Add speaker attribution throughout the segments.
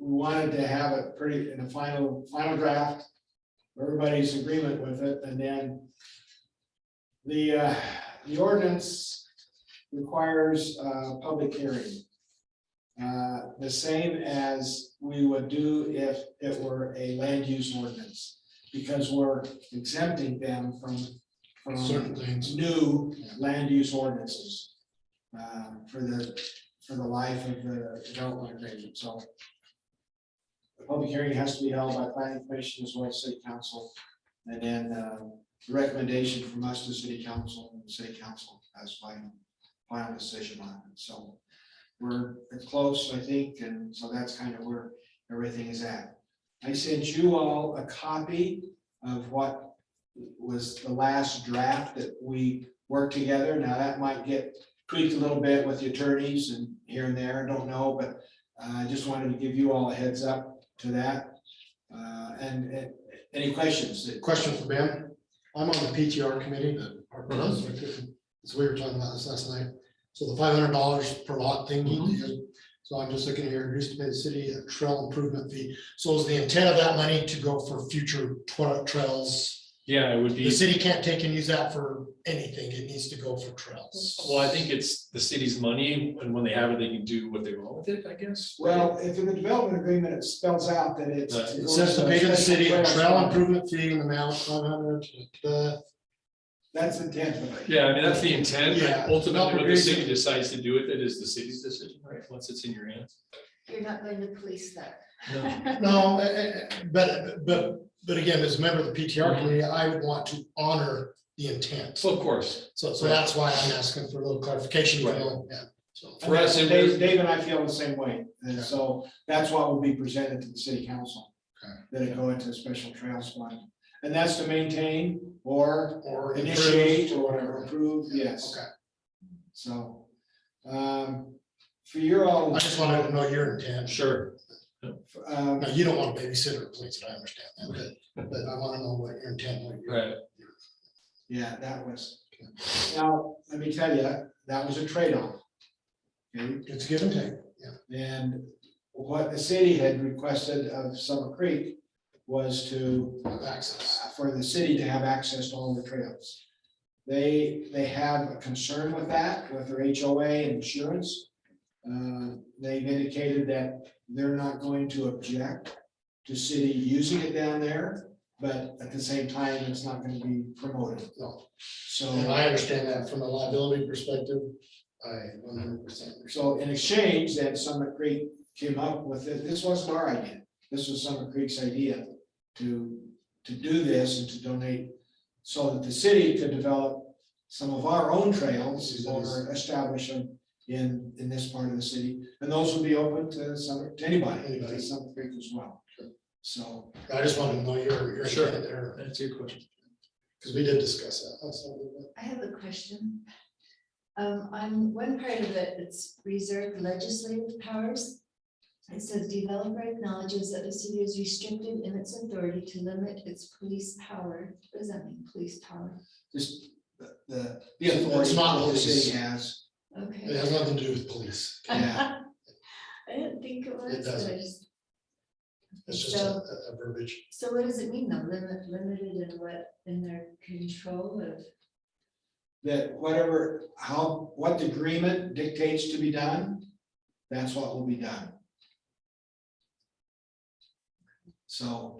Speaker 1: we wanted to have it pretty in a final, final draft. Everybody's agreement with it, and then. The, uh, the ordinance requires, uh, public hearing. Uh, the same as we would do if it were a land use ordinance, because we're exempting them from. from
Speaker 2: certain things.
Speaker 1: new land use ordinances uh, for the, for the life of the development agreement, so. The public hearing has to be held by planning commission as well as city council, and then um, the recommendation from us to city council, and the city council has final, final decision on it, so. We're close, I think, and so that's kind of where everything is at. I sent you all a copy of what was the last draft that we worked together. Now, that might get tweaked a little bit with the attorneys and here and there, I don't know, but uh, I just wanted to give you all a heads up to that. Uh, And uh, any questions? that-
Speaker 2: Question for Ben. I'm on the PTR committee that our
Speaker 3: Mm-hmm.
Speaker 2: president, as we were talking about this last night. So the five hundred dollars per lot thing he
Speaker 3: Mm-hmm.
Speaker 2: did. So I'm just looking here, introduced to the city a trail improvement fee. So is the intent of that money to go for future twa- trails?
Speaker 3: Yeah, it would
Speaker 2: The
Speaker 3: be,
Speaker 2: city can't take and use that for anything. It needs to go for trails.
Speaker 3: well, I think it's the city's money, and when they have it, they can do what they want with it, I guess.
Speaker 1: Well, if in the development agreement, it spells out that it's.
Speaker 3: Right.
Speaker 2: It says to pay to the city a trail improvement fee in the amount of five hundred.
Speaker 1: That's intentionally.
Speaker 3: Yeah, I mean, that's the intent,
Speaker 2: Yeah.
Speaker 3: but ultimately, what the city
Speaker 2: Appropriation.
Speaker 3: decides to do with it is the city's decision, right, once it's in your hands.
Speaker 4: You're not going to police that.
Speaker 3: No.
Speaker 2: No, eh, eh, eh, but, but, but again, as a member of the
Speaker 3: Mm-hmm.
Speaker 2: PTR committee, I would want to honor the intent.
Speaker 3: So of course,
Speaker 2: So, so that's why I'm asking for a little clarification, you
Speaker 3: Right.
Speaker 2: know, yeah, so.
Speaker 3: for us, it
Speaker 1: Dave
Speaker 3: was,
Speaker 1: Dave and I feel the same way, and so that's what will be presented to the city council.
Speaker 2: Okay.
Speaker 1: That it go into a special trails fund, and that's to maintain or
Speaker 2: Or
Speaker 1: initiate
Speaker 2: improve
Speaker 1: or whatever, approve, yes,
Speaker 2: Okay,
Speaker 1: so. Um, for your all.
Speaker 2: I just wanted to know your intent.
Speaker 3: sure,
Speaker 1: Um,
Speaker 2: Now, you don't want to babysit or police it, I understand that, but, but I want to know what your intent, what your.
Speaker 3: right,
Speaker 1: yeah, that was, now, let me tell you, that was a trade-off. Okay,
Speaker 2: It's give and take, yeah.
Speaker 1: and what the city had requested of Summer Creek was to
Speaker 2: with Access.
Speaker 1: uh, for the city to have access to all the trails. They, they have a concern with that, with their HOA and insurance. Uh, They've indicated that they're not going to object to city using it down there, but at the same time, it's not gonna be promoted.
Speaker 2: No. And
Speaker 1: So,
Speaker 2: I understand that from a liability perspective, I one hundred percent.
Speaker 1: so in exchange, that Summit Creek came up with it, this wasn't our idea, this was Summit Creek's idea to, to do this and to donate so that the city could develop some of our own trails or establish them in, in this part of the city. And those would be open to some, to anybody, to
Speaker 2: Anybody.
Speaker 1: Summit Creek as well. So,
Speaker 2: I just wanted to know your, your
Speaker 3: Sure.
Speaker 2: intent there,
Speaker 3: that's your question.
Speaker 2: because we did discuss that. That's something that-
Speaker 4: I have a question. Um, on one part of it, it's reserved legislative powers. It says developer acknowledges that the city is restricted in its authority to limit its police power. What does that mean, police power?
Speaker 1: just the- the, the
Speaker 2: It's
Speaker 1: authority
Speaker 2: not
Speaker 1: that the
Speaker 2: police.
Speaker 1: city has.
Speaker 2: It
Speaker 4: Okay.
Speaker 2: has nothing to do with police.
Speaker 1: yeah.
Speaker 4: I didn't think it was. but I
Speaker 2: doesn't.
Speaker 4: just-
Speaker 2: It's just a,
Speaker 4: So,
Speaker 2: a a verbiage.
Speaker 4: so what does it mean though? Limit, limited in what, in their control of?
Speaker 1: That whatever, how, what the agreement dictates to be done, that's what will be done. So.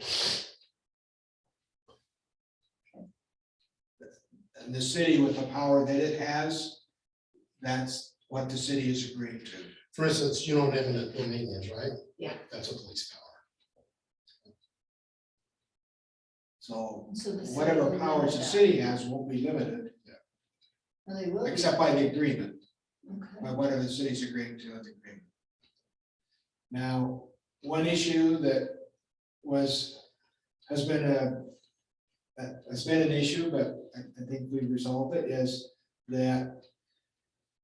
Speaker 1: And the city with the power that it has, that's what the city is agreeing to.
Speaker 2: For instance, you know what eminent domain is, right?
Speaker 4: Yeah.
Speaker 2: That's a police power.
Speaker 1: So
Speaker 4: so the city will
Speaker 1: whatever
Speaker 4: limit
Speaker 1: powers the
Speaker 4: that.
Speaker 1: city has won't be limited,
Speaker 4: Oh, they will be.
Speaker 1: except by the agreement.
Speaker 4: Okay.
Speaker 1: by whatever the city's agreeing to in the agreement. Now, one issue that was, has been a, a- has been an issue, but I, I think we resolved it, is that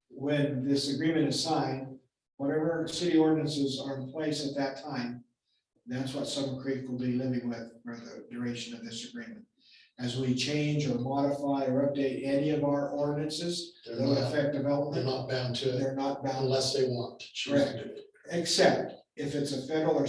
Speaker 1: when this agreement is signed, whatever city ordinances are in place at that time, that's what Summer Creek will be living with for the duration of this agreement. As we change or modify or update any of our ordinances
Speaker 2: They're
Speaker 1: that would
Speaker 2: not,
Speaker 1: affect
Speaker 2: they're
Speaker 1: development,
Speaker 2: not bound to it
Speaker 1: they're not bound,
Speaker 2: unless they want to choose to do it.
Speaker 1: except if it's a federal or